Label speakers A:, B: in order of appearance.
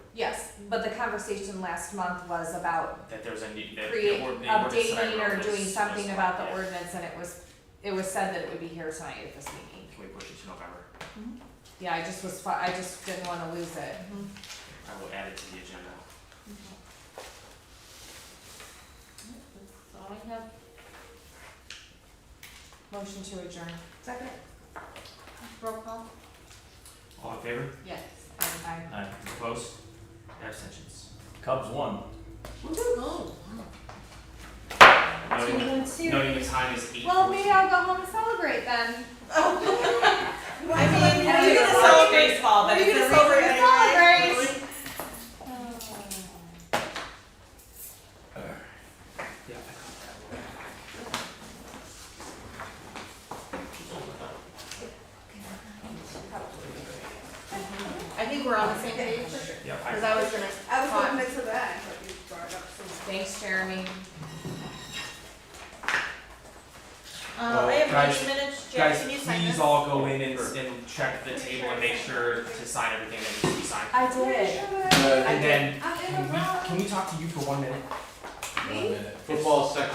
A: but the conversation last month was about
B: that there's a need, that
A: create,
B: the ord- the ordinance that I
A: updating
B: wrote
A: or
B: was-
A: doing
B: was
A: something
B: fine,
A: about the
B: yeah.
A: ordinance, and it was, it was said that it would be here tonight at this meeting.
B: Can we push it to November?
A: Yeah, I just was, fi- I just didn't wanna lose it.
B: I will add it to the agenda.
A: That's all I have. Motion to adjourn. Second. Roll call?
B: All in favor?
A: Yes. Aye.
B: Aye. Opposed? Abstentions?
C: Cubs won.
B: Noting the-
D: Two-one
B: Noting the
D: series.
B: time is eight.
A: Well, maybe I'll go home and celebrate then.
D: I mean,
A: I
D: you're
A: mean,
D: gonna celebrate baseball, but
A: Are you
D: it's
A: gonna
D: a
A: celebrate?
D: reason anyway.
A: Celebrate.
B: Yeah.
D: I think we're on the same page, Um,
B: Yeah, I-
D: cause I was gonna.
E: I was
D: talk-
E: going to that, but you brought it up so much.
A: Thanks, Jeremy.
D: Uh, I
B: Well,
D: have
B: guys-
D: these minutes, Jack,
B: Guys,
D: can you sign this?
B: please all go in and, and check the table and make sure to sign everything that needs to be signed.
A: I
B: And then,
A: I'm in
B: can
A: a
B: we,
A: row.
B: can we talk to you for one minute?
C: One minute.
F: Football section.